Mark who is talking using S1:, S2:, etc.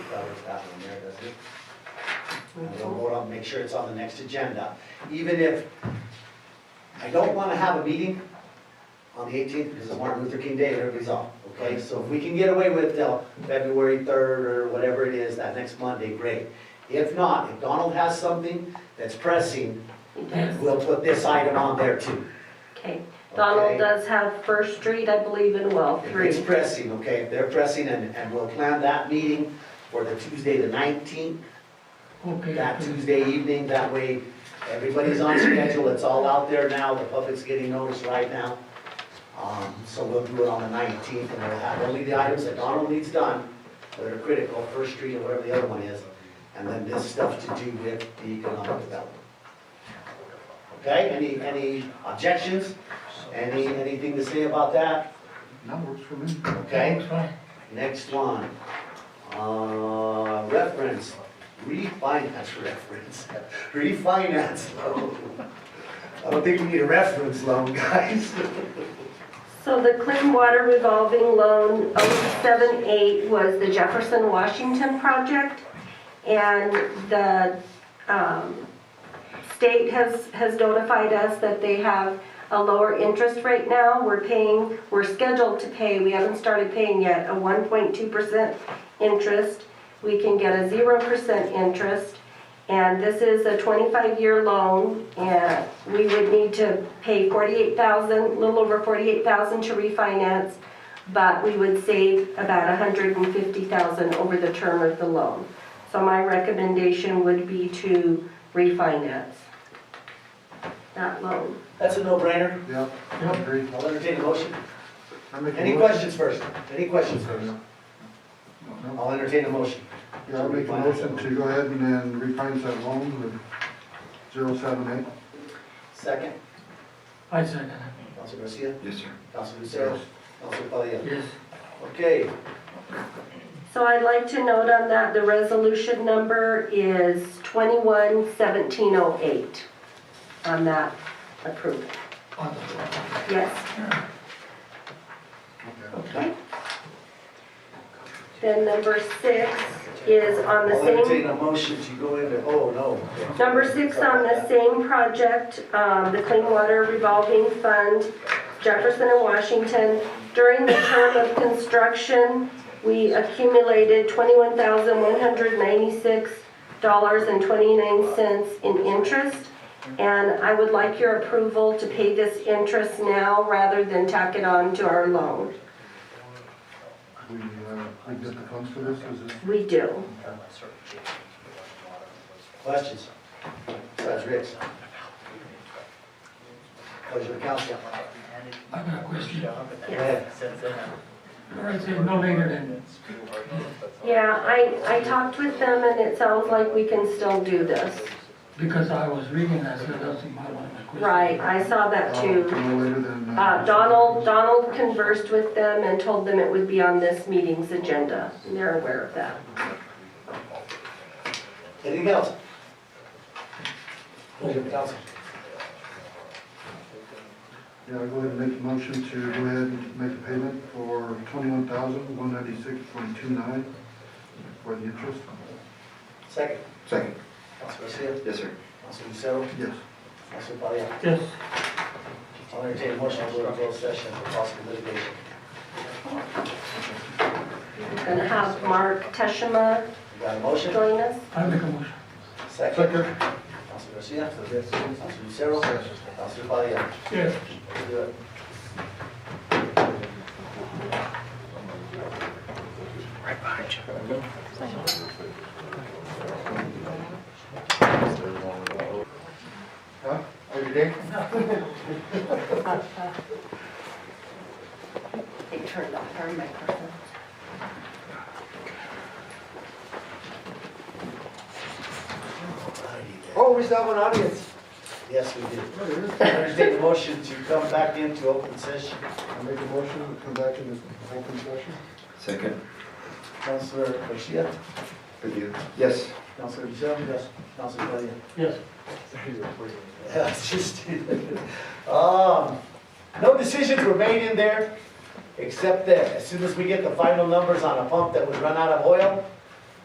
S1: that one there, does it? And we'll
S2: Well,
S1: vote on, make sure it's on the next agenda, even if, I don't wanna have a meeting on the eighteenth, because it's Martin Luther King Day, and everybody's off, okay? So if we can get away with till February third, or whatever it is, that next Monday, great. If not, if Donald has something that's pressing, we'll put this item on there too.
S2: Okay, Donald
S1: okay?
S2: does have First Street, I believe, in well
S1: If
S2: three.
S1: it's pressing, okay, if they're pressing, and, and we'll plan that meeting for the Tuesday, the nineteenth,
S3: Okay,
S1: that Tuesday evening, that way everybody's on schedule, it's all out there now, the public's getting noticed right now. Um, so we'll do it on the nineteenth, and we'll have only the items that Donald needs done, that are critical, First Street or whatever the other one is, and then this stuff to do with the economic development. Okay, any, any objections, any, anything to say about that?
S3: that works for me.
S1: Okay.
S3: That's fine.
S1: Next one, uh, reference, refinance reference, refinance loan. I don't think we need a reference loan, guys.
S2: So the Clean Water Revolving Loan 078 was the Jefferson Washington project. And the um, state has, has notified us that they have a lower interest rate now. We're paying, we're scheduled to pay, we haven't started paying yet, a 1.2% interest. We can get a 0% interest. And this is a 25-year loan, and we would need to pay 48,000, a little over 48,000 to refinance, but we would save about 150,000 over the term of the loan. So my recommendation would be to refinance that loan.
S1: That's a no-brainer,
S3: Yeah, I agree.
S1: I'll entertain a motion.
S3: I make a
S1: Any
S3: motion-
S1: questions first? Any questions first?
S3: No, no.
S1: I'll entertain a motion.
S3: Yeah, I make a motion to go ahead and then refinance that loan with zero seven eight.
S1: Second,
S4: I second it.
S1: Council Garcia,
S3: Yes, sir.
S1: Council Lucero, Council Palia.
S4: Yes.
S1: Okay,
S2: So I'd like to note on that, the resolution number is 211708 on that approval.
S4: On the floor.
S2: Yes.
S3: Okay.
S2: Okay. Then number six is on the
S1: I'll entertain
S2: same,
S1: a motion to go into, oh, no.
S2: number six on the same project, um, the Clean Water Revolving Fund, Jefferson and Washington. During the term of construction, we accumulated twenty-one thousand one hundred ninety-six dollars and twenty-nine cents in interest. And I would like your approval to pay this interest now rather than tack it on to our loan.
S3: We, uh, we get the funds for this, is it?
S2: We do.
S1: Questions? Judge Riggs. Pleasure of council.
S4: I got a question.
S1: Go ahead.
S4: I said no later than,
S2: Yeah, I, I talked with them and it sounds like we can still do this.
S4: because I was reading that, so that's my one of the questions.
S2: Right, I saw that
S3: Uh,
S2: too.
S3: No later than.
S2: Uh, Donald, Donald conversed with them and told them it would be on this meeting's agenda. and They're aware of that.
S1: Anything else? Pleasure of council.
S3: Yeah, I'll go ahead and make a motion to go ahead and make a payment for twenty-one thousand, one ninety-six point two nine for the interest.
S1: Second.
S3: Second.
S1: Council Garcia.
S3: Yes, sir.
S1: Council Lucero.
S3: Yes.
S1: Council Palia.
S4: Yes.
S1: I'll entertain a motion to go into closed session for possible litigation.
S2: We're Gonna have Mark Teshima
S1: You got a motion?
S2: join us.
S4: I make a motion.
S1: Second.
S3: Second.
S1: Council Garcia. Council Lucero. Council Palia.
S4: Yes.
S1: Do it.
S3: Huh? Every day?
S2: They turned off our microphone.
S3: Oh, we still have an audience.
S1: Yes, we do. Entertain a motion to come back into open session.
S3: I make a motion to come back in this open session.
S5: Second.
S1: Councilor Garcia.
S5: Yes.
S1: Councilor Lucero. Yes. Council Palia.
S4: Yes.
S1: Yeah, it's just, um, no decisions were made in there, except that as soon as we get the final numbers on a pump that would run out of oil,